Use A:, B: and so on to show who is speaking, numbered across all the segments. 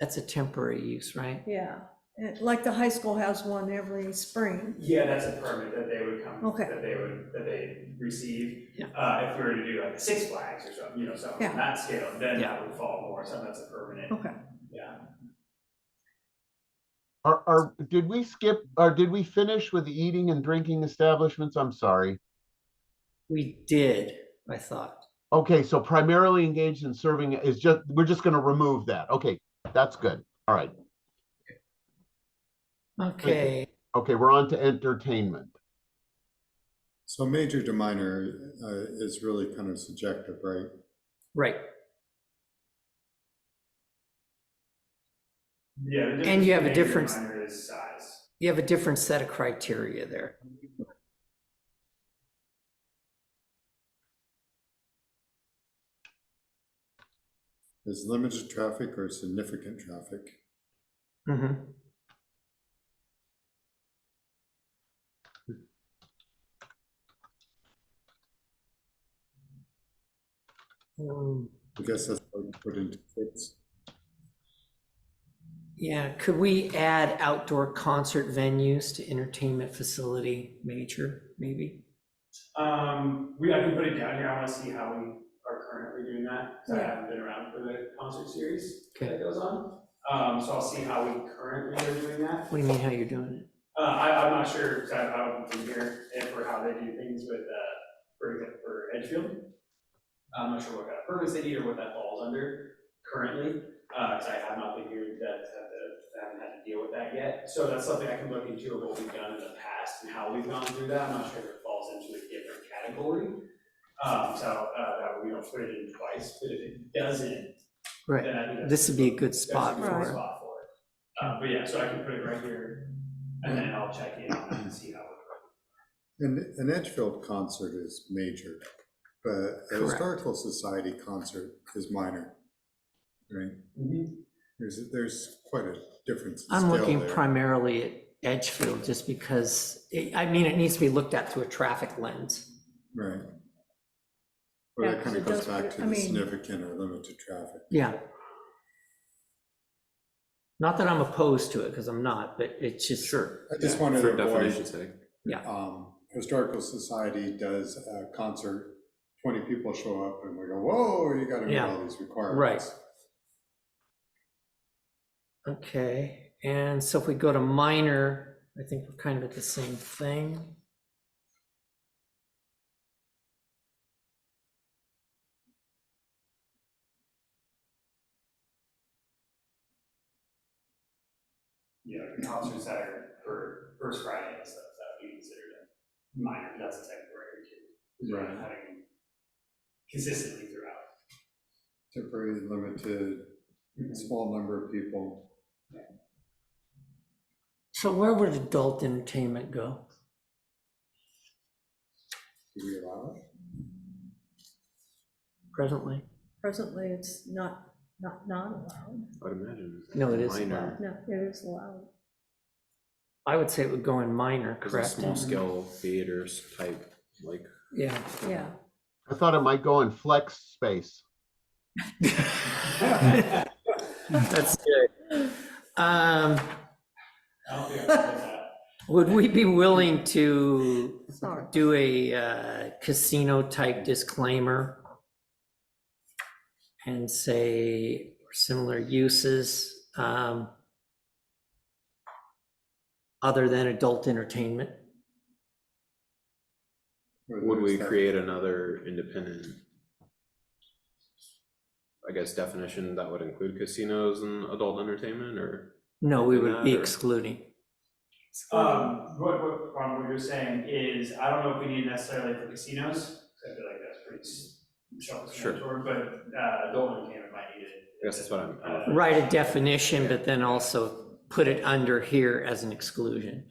A: That's a temporary use, right?
B: yeah. And Like the high school has one every spring.
C: Yeah, that's a permit that they would come,
B: Okay.
C: that they would, that they receive.
A: Yeah.
C: Uh, if we were to do like a Six Flags or something, you know, something
B: Yeah.
C: on that scale, then
A: Yeah.
C: that would fall more, something that's a permanent,
B: Okay.
C: yeah.
D: Are, are, did we skip, or did we finish with the eating and drinking establishments? I'm sorry.
A: We did, I thought.
D: Okay, so primarily engaged in serving is just, we're just gonna remove that. Okay, that's good. All right.
A: Okay,
D: Okay, we're on to entertainment.
E: So major to minor uh, is really kind of subjective, right?
A: right.
C: Yeah. the
A: And you have a
C: difference
A: difference-
C: between major and minor is size.
A: You have a different set of criteria there.
E: Is limited traffic or significant traffic?
A: Mhm. Um,
E: I guess that's what you put into kids.
A: Yeah, could we add outdoor concert venues to entertainment facility major, maybe?
C: Um, we, I can put it down here, I wanna see how we are currently doing that, 'cause I
B: Yeah.
C: haven't been around for the concert series
A: Okay.
C: that goes on. Um, so I'll see how we currently are doing that.
A: What do you mean how you're doing it?
C: Uh, I, I'm not sure, 'cause I, I don't be here, and for how they do things with, uh, for, example, for Edgefield. I'm not sure what kind of permits they need or what that falls under currently, uh, 'cause I have not been here, that, that, that- I haven't had to deal with that yet. So that's something I can look into of what we've done in the past and how we've gone through that, I'm not sure if it falls into a different category. Um, so, uh, that we don't put it in twice, but if it doesn't,
A: Right,
C: then I think that's.
A: this would be a good
C: That's a
A: spot
C: good
A: for it.
C: spot for it. Uh, but yeah, so I can put it right here, and then I'll check in on that and see how it
E: And an Edgefield concert is major, but a
A: Correct.
E: historical society concert is minor. Right?
C: goes.
E: There's, there's quite a difference. in
A: I'm
E: scale
A: looking
E: there.
A: primarily at Edgefield just because, it- I mean, it needs to be looked at through a traffic lens.
E: Right. Well,
B: Yeah,
E: that
B: 'cause
E: kind of
B: it
E: goes
B: does
E: back
B: put-
E: to
B: I
E: the
B: mean-
E: significant or limited traffic.
A: Yeah. Not that I'm opposed to it, because I'm not, but it's just. Sure.
E: I just wanted to
F: For definition's
E: avoid,
F: sake.
E: um, historical society does a concert, twenty people show up and we go, whoa, you gotta meet
A: Yeah.
E: all these requirements.
A: Okay, and so if we go to minor, I think we're kind of at the same thing.
C: You know, concerts that are for first Friday and stuff, that would be considered a minor, but that's a temporary too. Right. Having consistently throughout.
E: Temporary, limited, small number of people.
A: So where would adult entertainment go?
E: Do we allow it?
A: Presently,
B: Presently, it's not, not, not allowed.
F: I'd imagine.
A: No, it is
F: Minor,
B: No, it is allowed.
A: I would say it would go in minor,
F: it's a
A: correct?
F: small scale theaters type, like,
A: Yeah.
B: Yeah.
D: I thought it might go in flex space.
A: That's good. Um,
C: I don't think I can put that.
A: would we be willing to
B: Sorry.
A: do a uh, casino type disclaimer? And say similar uses, um, other than adult entertainment?
E: Or
F: would we
E: there's that-
F: create another independent? I guess definition that would include casinos and adult entertainment, or,
A: No, we would be
F: Another.
A: excluding.
C: Um, what, what, Ron, what you're saying is, I don't know if we need necessarily for casinos, 'cause I feel like that's pretty s- sheltered,
F: Sure.
C: toward, but, uh, adult entertainment might need it.
F: I guess that's what I'm- I'm.
A: Write a definition, but then also put it under here as an exclusion.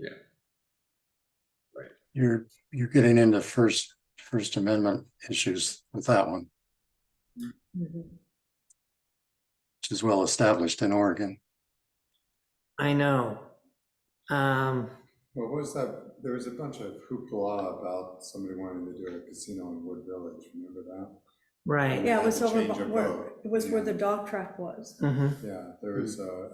G: You're, you're getting into first, First Amendment issues with that one,
B: Mhm.
G: which is well established in Oregon.
A: I know. Um,
E: What was that? There was a bunch of hoopla about somebody wanting to do a casino in Wood Village, remember that?
A: right.
B: Yeah, it was
E: Change
B: over,
E: of
B: where-
E: road.
B: it was where the dog track was.
A: Mm-hmm.
E: Yeah, there is a,